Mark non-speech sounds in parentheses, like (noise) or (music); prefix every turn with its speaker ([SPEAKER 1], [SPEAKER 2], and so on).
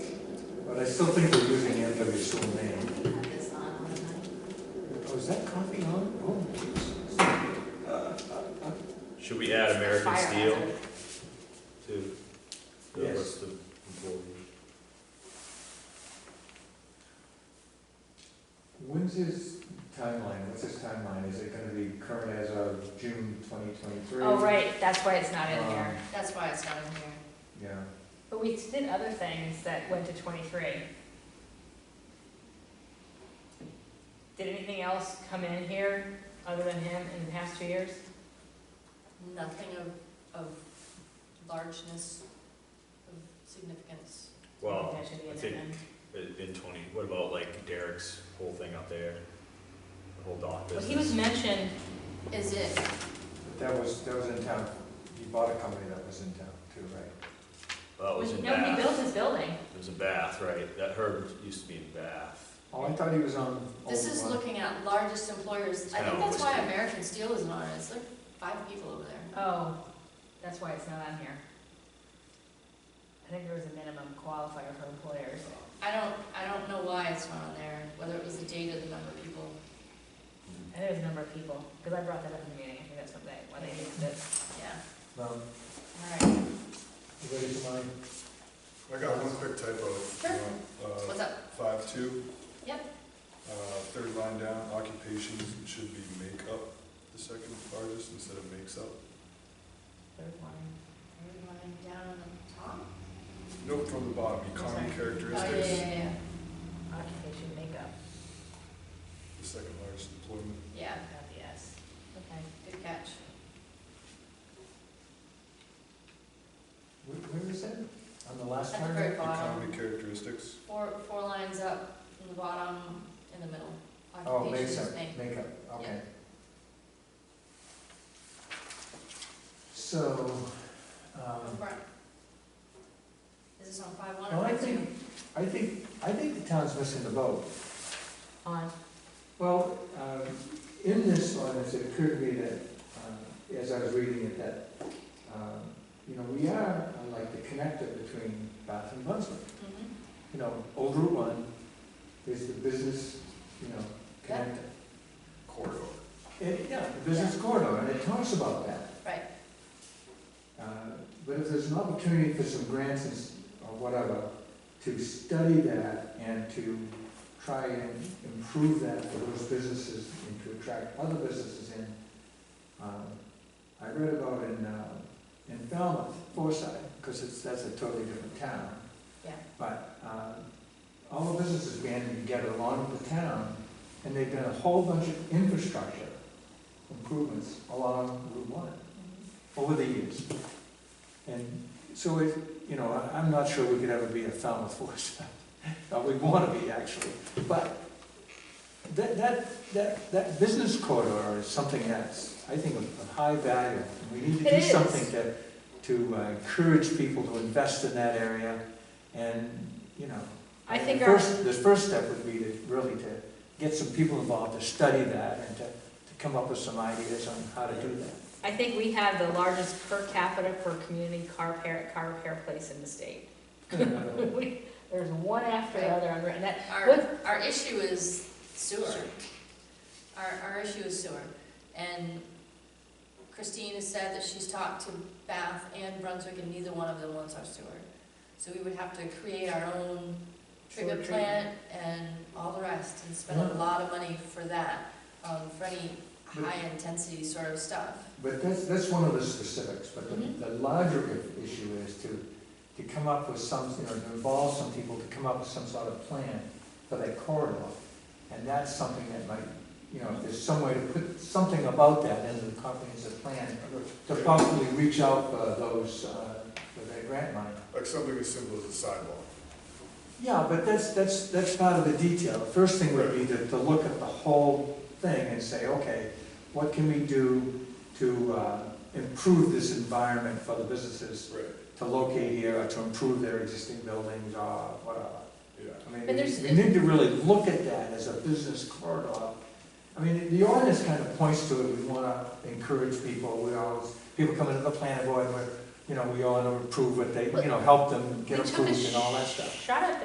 [SPEAKER 1] But I still think we're using NW's full name.
[SPEAKER 2] It's not on the-
[SPEAKER 1] Oh, is that coffee on? Oh, jeez.
[SPEAKER 3] Should we add American
[SPEAKER 2] Fire
[SPEAKER 3] Steel
[SPEAKER 2] hazard.
[SPEAKER 3] to the
[SPEAKER 1] Yes.
[SPEAKER 3] list of employees?
[SPEAKER 1] When's his timeline? What's his timeline? Is it gonna be current as of June twenty twenty-three?
[SPEAKER 4] Oh, right, that's why it's not in here.
[SPEAKER 2] That's why it's not in here.
[SPEAKER 1] Yeah,
[SPEAKER 4] But we did other things that went to twenty-three. Did anything else come in here other than him in the past two years?
[SPEAKER 2] Nothing of, of largeness, of significance.
[SPEAKER 3] Well,
[SPEAKER 4] That should be
[SPEAKER 3] I
[SPEAKER 4] in there
[SPEAKER 3] think-
[SPEAKER 4] then.
[SPEAKER 3] i- in twenty, what about like Derek's whole thing up there? The whole dock
[SPEAKER 4] Well,
[SPEAKER 3] business?
[SPEAKER 4] he was mentioned,
[SPEAKER 2] Is it,
[SPEAKER 1] but that was, that was in town. He bought a company that was in town too, right?
[SPEAKER 3] That Oh, was in
[SPEAKER 4] no, he built
[SPEAKER 3] Bath.
[SPEAKER 4] his building.
[SPEAKER 3] It was in Bath, right? That herb used to be in Bath.
[SPEAKER 1] Oh, I thought he was on.
[SPEAKER 2] this
[SPEAKER 1] Old
[SPEAKER 2] is
[SPEAKER 1] One.
[SPEAKER 2] looking at largest employers, I think that's why American Steel isn't on it, it's like five people over there.
[SPEAKER 4] Oh, that's why it's not on here. I think there was a minimum qualifier for employers.
[SPEAKER 2] I don't, I don't know why it's not on there, whether it was the date or the number of people,
[SPEAKER 4] I think it was a number of people, because I brought that up in the meeting, I think that's what they, why they did this.
[SPEAKER 2] yeah,
[SPEAKER 1] Mom,
[SPEAKER 2] all right,
[SPEAKER 1] you ready for mine?
[SPEAKER 5] I got one quick typo.
[SPEAKER 2] what's up?
[SPEAKER 5] uh, Five two.
[SPEAKER 2] Yep.
[SPEAKER 5] Uh, third line down, occupations should be make up, the second largest instead of makes up.
[SPEAKER 4] Third line.
[SPEAKER 2] Third line down on the top?
[SPEAKER 5] Nope, from the bottom,
[SPEAKER 4] sorry.
[SPEAKER 5] economy
[SPEAKER 2] Oh, yeah,
[SPEAKER 5] characteristics,
[SPEAKER 2] yeah, yeah,
[SPEAKER 4] Occupation makeup,
[SPEAKER 5] the second largest employment.
[SPEAKER 2] yeah,
[SPEAKER 4] not the E S. Okay.
[SPEAKER 2] good catch.
[SPEAKER 1] Where, where is that? On the last
[SPEAKER 2] At the
[SPEAKER 1] part?
[SPEAKER 2] very
[SPEAKER 4] Um,
[SPEAKER 2] bottom,
[SPEAKER 5] Economy characteristics,
[SPEAKER 2] four, four lines up, in the bottom, in the middle.
[SPEAKER 1] Oh, makes
[SPEAKER 2] Occupations,
[SPEAKER 1] up,
[SPEAKER 2] make-
[SPEAKER 1] makeup, okay. So, um,
[SPEAKER 2] Right. Is this on five one
[SPEAKER 1] Well,
[SPEAKER 2] or
[SPEAKER 1] I
[SPEAKER 2] five two?
[SPEAKER 1] think- I think, I think the town's missing the boat.
[SPEAKER 4] On,
[SPEAKER 1] Well, um, in this ordinance, it occurred to me that, um, as I was reading it, that, um, you know, we are uh, like the connector between Bath and Brunswick.
[SPEAKER 2] Mhm.
[SPEAKER 1] You know, Old Route One is the business, you know, connector.
[SPEAKER 5] corridor.
[SPEAKER 1] It- Yeah, the business corridor, and it talks about that.
[SPEAKER 2] Right.
[SPEAKER 1] Uh, But if there's an opportunity for some grants and s- or whatever, to study that and to try and improve that for those businesses and to attract other businesses in. um, I read about in, uh, in Falmouth, Forsyth, because it's, that's a totally different town.
[SPEAKER 2] Yeah.
[SPEAKER 1] But um, all the businesses banded together along with the town, and they've done a whole bunch of infrastructure improvements along Route One over the years. And so it, you know, I- I'm not sure we could ever be a Falmouth (laughs) force, but we want to be actually. But that, that, that, that business corridor is something that's, I think, of of high value. We need to
[SPEAKER 4] It
[SPEAKER 1] do
[SPEAKER 4] is.
[SPEAKER 1] something to, to uh, encourage people to invest in that area and, you know.
[SPEAKER 4] I
[SPEAKER 1] the
[SPEAKER 4] think our-
[SPEAKER 1] first- The first step would be to really to get some people involved to study that and to, to come up with some ideas on how to do that.
[SPEAKER 4] I think we have the largest per capita per community car repair, car repair place in the state. (laughs) We- There's one after the other on, and that,
[SPEAKER 2] Our, our issue is sewer. Our, our issue is sewer. And Christine has said that she's talked to Bath and Brunswick and neither one of them wants our sewer. So we would have to create our own
[SPEAKER 4] Sewer
[SPEAKER 2] treatment
[SPEAKER 4] treatment.
[SPEAKER 2] plant and all the rest and spend a
[SPEAKER 1] Yeah.
[SPEAKER 2] lot of money for that, um, for any
[SPEAKER 1] But-
[SPEAKER 2] high intensity sort of stuff.
[SPEAKER 1] (laughs) But that's, that's one of the specifics, but
[SPEAKER 2] Mhm.
[SPEAKER 4] Mm-hmm.
[SPEAKER 1] the, the larger i- issue is to, to come up with some, you know, to involve some people to come up with some sort of plan for that corridor. And that's something that might, you know, if there's some way to put something about that into the comprehensive plan, to possibly reach out for those, uh, for that grant money.
[SPEAKER 5] Like something as simple as a sidewalk.
[SPEAKER 1] Yeah, but that's, that's, that's part of the detail. First thing would be to, to look at the whole thing and say, okay, what can we do to uh, improve this environment for the businesses
[SPEAKER 5] Right,
[SPEAKER 1] to locate here or to improve their existing buildings or whatever?
[SPEAKER 5] yeah.
[SPEAKER 1] I mean,
[SPEAKER 4] But there's-
[SPEAKER 1] we need to really look at that as a business corridor. I mean, the ordinance kind of points to it, we wanna encourage people, we always, people come into the planning board, we're, you know, we all wanna improve what they, you know, help them
[SPEAKER 4] we
[SPEAKER 1] get
[SPEAKER 4] took a
[SPEAKER 1] approved and all that
[SPEAKER 4] sh-
[SPEAKER 1] stuff.
[SPEAKER 4] shot at